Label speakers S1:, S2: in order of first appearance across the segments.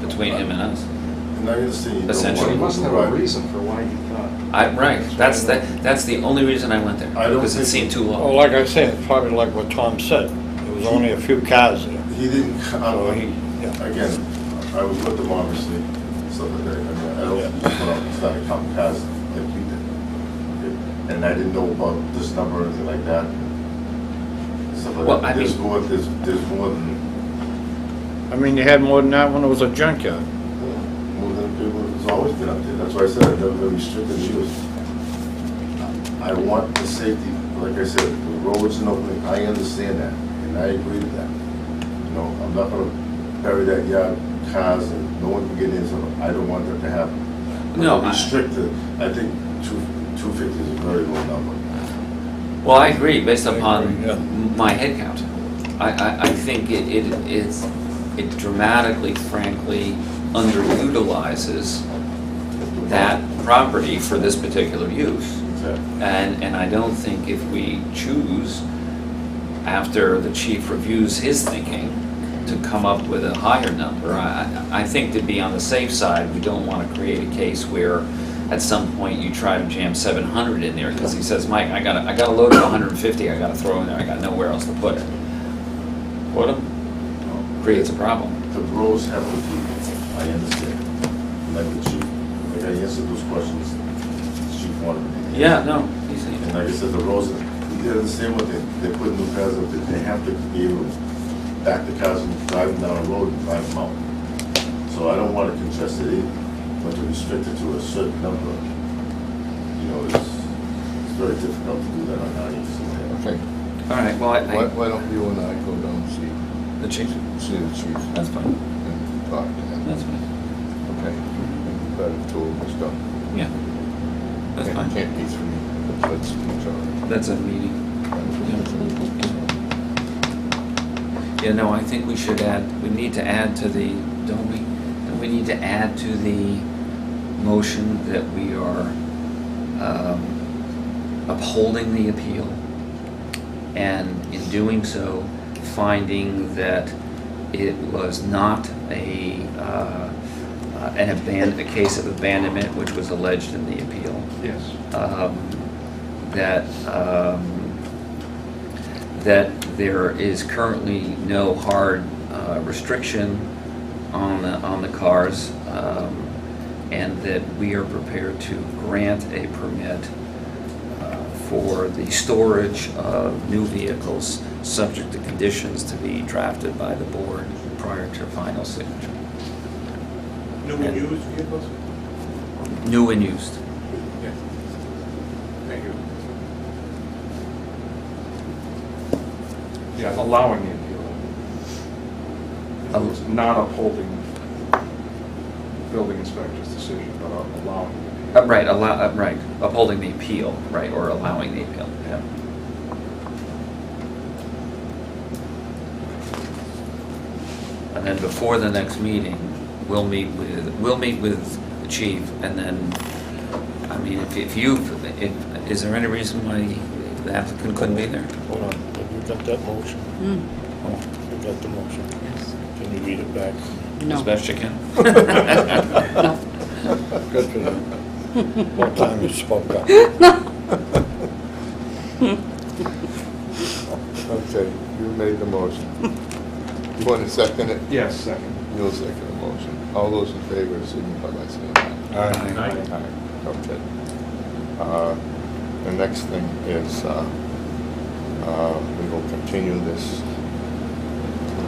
S1: between him and us.
S2: And I understand. you don't
S1: Essentially.
S3: Well, he
S2: want-
S3: must have a
S2: right.
S3: reason for why he thought.
S1: I, right, that's, that, that's the only reason I went there,
S2: I don't
S1: because it seemed
S2: think-
S1: too
S4: Well,
S1: long.
S4: like I say, it's probably like what Tom said, there was only a few cars there.
S2: He didn't, I
S4: So
S2: don't,
S4: he- yeah.
S2: again, I was with them obviously, stuff like that. I mean, I don't,
S4: Yeah.
S2: well, it's not a common past like we did. okay? And I didn't know about this number or anything like that. Stuff
S1: Well,
S2: like
S1: I
S2: that. There's
S1: mean-
S2: more, there's, there's more than,
S4: I mean, you had more than that when it was a junkyard.
S2: more than people, it's always been up there. That's why I said I've never been restricted to use. I want the safety, like I said, the roads and opening, I understand that, and I agree with that. You know, I'm not gonna bury that yard, cars, and no one can get in, so I don't want that to happen. But
S1: No, I-
S2: Restricted, I think two, two fifty is a very low number.
S1: Well, I agree, based
S4: I agree, yeah.
S1: upon my head count. I, I, I think it, it, it's, it dramatically, frankly, underutilizes that property for this particular use.
S2: Exactly.
S1: And, and I don't think if we choose, after the chief reviews his thinking, to come up with a higher number, I, I I think to be on the safe side, we don't want to create a case where at some point you try to jam seven hundred in there, because he says, Mike, I got, a- I got a load of hundred and fifty, I got to throw in there, I got nowhere else to put it. Put 'em,
S2: You know,
S1: creates a problem.
S2: The roads have to be, I understand, like the chief, like I answered those questions, the chief wanted me to answer.
S1: Yeah, no, he's-
S2: And like I said, the roads, they're the same with it, they put new cars up, there. they have to be able to back the cars and drive them down the road and drive them out. So I don't want to congest it either, but to restrict it to a certain number, you know, it's, it's very difficult to do that on our use.
S5: Okay,
S1: all right, well, I,
S5: why,
S1: I,
S5: why don't you and I go down and see,
S1: the chief,
S5: see the chief
S1: that's fine,
S5: and talk to him?
S1: that's fine,
S5: Okay, better tool and stuff.
S1: yeah, that's
S5: Can't-
S1: fine,
S5: Can't be three, that's, that's all right.
S1: that's a meeting.
S5: That's-
S1: Yeah, no, I think we should add, we need to add to the, don't we, don't we need to add to the motion that we are um, upholding the appeal? And in doing so, finding that it was not a, uh, uh, an abandon, a case of abandonment which was alleged in the appeal
S3: Yes.
S1: um, that, um, that there is currently no hard uh, restriction on the, on the cars, um, and that we are prepared to grant a permit uh, for the storage of new vehicles, subject to conditions to be drafted by the board prior to final signature.
S6: New and used vehicles?
S1: New and used.
S6: Yes. Thank you.
S3: Yeah, allowing the appeal. It's
S1: Um,
S3: Not upholding building inspector's decision, but allowing the
S1: Uh,
S3: appeal.
S1: Right, allow, uh, right, upholding the appeal, right, or allowing the appeal, yeah. And then before the next meeting, we'll meet with, we'll meet with the chief, and then, I mean, if, if you, if, is there any reason why the applicant couldn't be there?
S7: Hold on, have you got that motion?
S1: Oh,
S7: You got the motion? Yes. Can you read it back?
S1: As
S8: No.
S1: best you can.
S8: No.
S4: Good for them. What time you spoke up?
S5: Okay, you made the motion. You want to second it?
S3: Yes, second.
S5: You'll second the motion. All those in favor signify by saying aye.
S3: Aye.
S5: Aye, okay. Uh, The next thing is, uh, uh, we will continue this.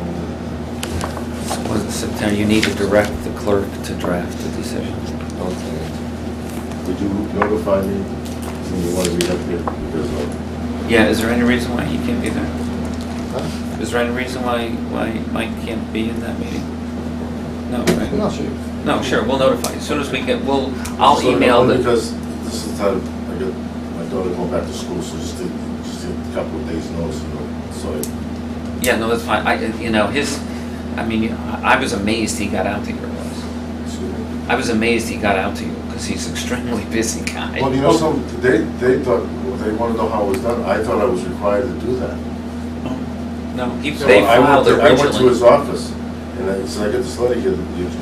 S1: Was it September, you need to direct the clerk to draft the decision.
S5: Okay,
S2: Would you notify me when you want to be up here? Because uh, like,
S1: Yeah, is there any reason why he can't be there?
S5: Huh?
S1: Is there any reason why, why Mike can't be in that meeting? No, right?
S5: No.
S1: No, sure, we'll notify, as soon as we get, we'll, I'll
S2: So,
S1: email
S2: only
S1: the,
S2: Because this is the time, I got, my daughter going back to school, so just did, just did a couple of days notice, you know, so I
S1: yeah, no, that's fine, I, you know, his, I mean, I I was amazed he got out to your place.
S2: Excuse me.
S1: I was amazed he got out to you, because he's extremely busy guy.
S2: Well, you know, some, they, they thought, well, they wanna know how it was done, I thought I was required to do that.
S1: No, he,
S2: So
S1: they
S2: I went
S1: filed
S2: to-
S1: originally.
S2: I went to his office, and I, so I get this letter here, that you can